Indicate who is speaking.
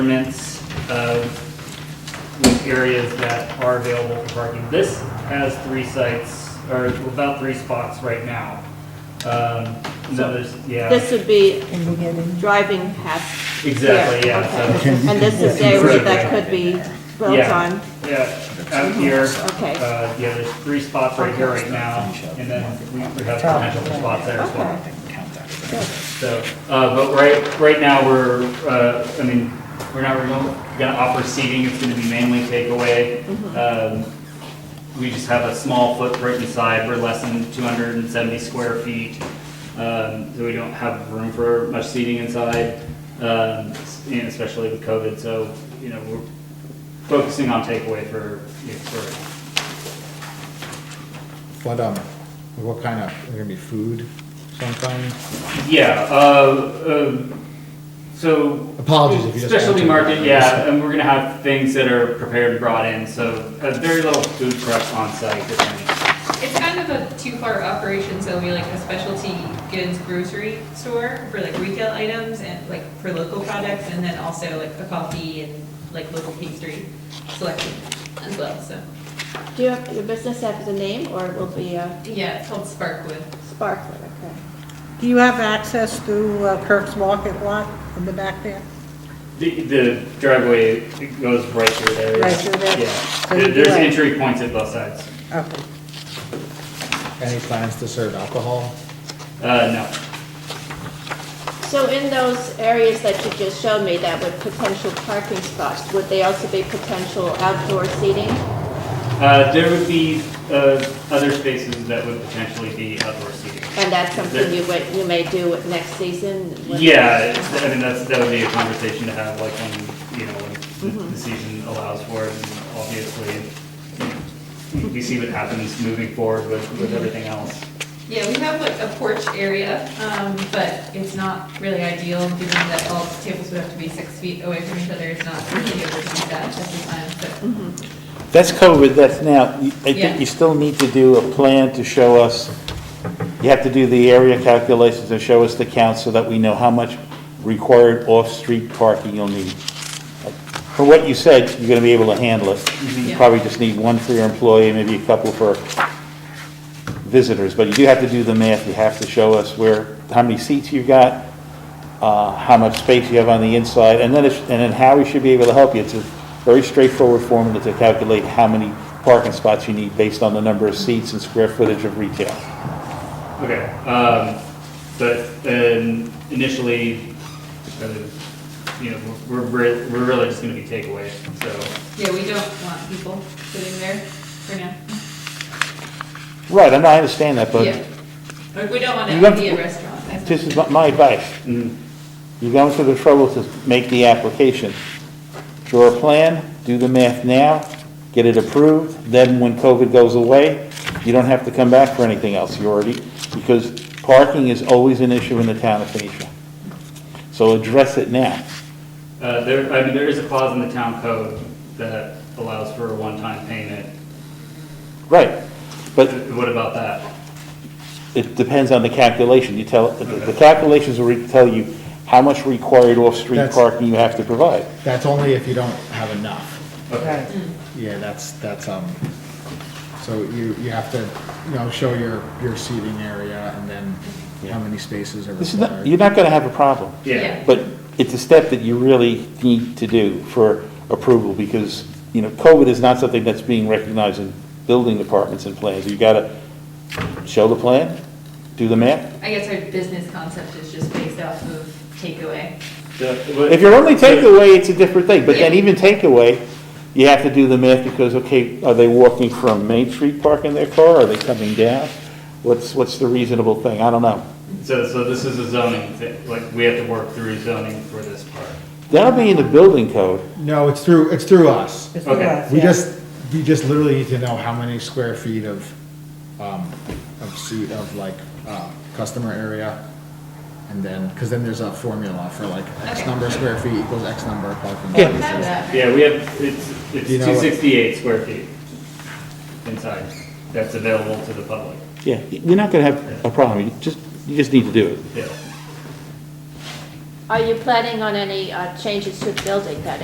Speaker 1: measurements of with areas that are available for parking. This has three sites, or about three spots right now. Um, No, there's, yeah,
Speaker 2: This would be
Speaker 3: in the beginning.
Speaker 2: driving past.
Speaker 1: exactly,
Speaker 2: here,
Speaker 1: yeah, so,
Speaker 2: okay. And this is the area that could be built
Speaker 1: Yeah.
Speaker 2: on,
Speaker 1: yeah, out here,
Speaker 2: okay,
Speaker 1: uh, yeah, there's three spots right here right now, and then we we have potential for spots there as well.
Speaker 2: okay.
Speaker 1: So, uh, but right, right now, we're, uh, I mean, we're not, we're gonna offer seating, it's gonna be mainly takeaway. Um, We just have a small footprint inside, we're less than two hundred and seventy square feet, um, so we don't have room for much seating inside, um, s- and especially with COVID, so, you know, we're focusing on takeaway for, for,
Speaker 4: What, um, what kind of, there gonna be food sometime?
Speaker 1: yeah, uh, um, so
Speaker 4: Apologies if you just.
Speaker 1: Specialty
Speaker 4: answered.
Speaker 1: market, yeah, and we're gonna have things that are prepared and brought in, so uh, very little food prep on site. if any.
Speaker 5: It's kind of a two-part operation, so it'll be like a specialty goods grocery store for like retail items and like for local products, and then also like a coffee and like local pastry selection as well, so.
Speaker 2: Do you have, your business have the name, or it will be uh,
Speaker 5: Yeah, it's called Sparkwood.
Speaker 2: Sparkler, okay?
Speaker 3: Do you have access through uh, Kirk's Market lot in the back there?
Speaker 1: The, the driveway it goes right through there.
Speaker 3: Right through there?
Speaker 1: Yeah,
Speaker 3: So
Speaker 1: There-
Speaker 3: you
Speaker 1: there's
Speaker 3: do it.
Speaker 1: entry points at both sides.
Speaker 3: Okay.
Speaker 4: Any plans to serve alcohol?
Speaker 1: Uh, no,
Speaker 2: So in those areas that you just showed me, that would potential parking spots, would they also be potential outdoor seating?
Speaker 1: uh, there would be, uh, other spaces that would potentially be outdoor seating.
Speaker 2: And that's something you would, you may do with next season? when-
Speaker 1: Yeah, it's- I mean, that's, that would be a conversation to have, like, when, you know, when the- the season allows for it, and obviously, you know, we see what happens moving forward with, with everything else.
Speaker 5: Yeah, we have like a porch area, um, but it's not really ideal, given that all the tables would have to be six feet away from each other, it's not really able to do that at the time, so.
Speaker 6: That's covered, that's now, I think
Speaker 5: Yeah.
Speaker 6: you still need to do a plan to show us, you have to do the area calculations and show us the count so that we know how much required off-street parking you'll need. From what you said, you're gonna be able to handle it. You
Speaker 5: Yeah.
Speaker 6: probably just need one for your employee, maybe a couple for visitors, but you do have to do the math, you have to show us where, how many seats you've got, uh, how much space you have on the inside, and then, it's- and then how we should be able to help you. It's a very straightforward formula to calculate how many parking spots you need based on the number of seats and square footage of retail.
Speaker 1: Okay, um, but, um, initially, uh, you know, we're, we're, we're really just gonna be takeaway, so.
Speaker 5: Yeah, we don't want people sitting there for now.
Speaker 6: Right, I know, I understand that, but
Speaker 5: Yeah. Like, we don't want
Speaker 6: You
Speaker 5: it
Speaker 6: have
Speaker 5: to be a
Speaker 6: to-
Speaker 5: restaurant. that's-
Speaker 6: this is my- my advice.
Speaker 1: mm,
Speaker 6: You're going to the trouble to make the application. Draw a plan, do the math now, get it approved, then when COVID goes away, you don't have to come back for anything else, you already, because parking is always an issue in the town of Phoenisha. So address it now.
Speaker 1: Uh, there, I mean, there is a clause in the town code that allows for a one-time payment.
Speaker 6: Right, but
Speaker 1: What about that?
Speaker 6: it depends on the calculation, you tell, the- the calculations will re- tell you how much required off-street
Speaker 4: That's-
Speaker 6: parking you have to provide.
Speaker 4: That's only if you don't have enough.
Speaker 1: Okay,
Speaker 4: Yeah, that's, that's, um, so you, you have to, you know, show your, your seating area and then how many spaces are
Speaker 6: This is not,
Speaker 4: required.
Speaker 6: you're not gonna have a problem.
Speaker 1: yeah.
Speaker 6: But it's a step that you really need to do for approval, because, you know, COVID is not something that's being recognized in building departments and plans. You gotta show the plan, do the math.
Speaker 5: I guess our business concept is just based off of takeaway.
Speaker 6: If you're only takeaway, it's a different thing, but then even takeaway, you have to do the math, because, okay, are they walking from Main Street parking their car, are they coming down? What's, what's the reasonable thing? I don't know.
Speaker 1: So, so this is a zoning thing, like, we have to work through zoning for this part.
Speaker 6: That'll be in the building code.
Speaker 4: No, it's through, it's through us.
Speaker 3: It's
Speaker 1: Okay.
Speaker 3: through us,
Speaker 4: We
Speaker 3: yeah.
Speaker 4: just, we just literally need to know how many square feet of, um, of seat, of like, uh, customer area. And then, because then there's a formula for like X
Speaker 5: Okay.
Speaker 4: number of square feet equals X number of parking
Speaker 6: Yeah.
Speaker 4: spaces.
Speaker 5: Have that.
Speaker 1: Yeah, we have, it's, it's
Speaker 4: You know what?
Speaker 1: two sixty-eight square feet inside, that's available to the public,
Speaker 6: Yeah, you're not gonna have a problem, you just, you just need to do it.
Speaker 1: yeah.
Speaker 2: Are you planning on any uh, changes to the building that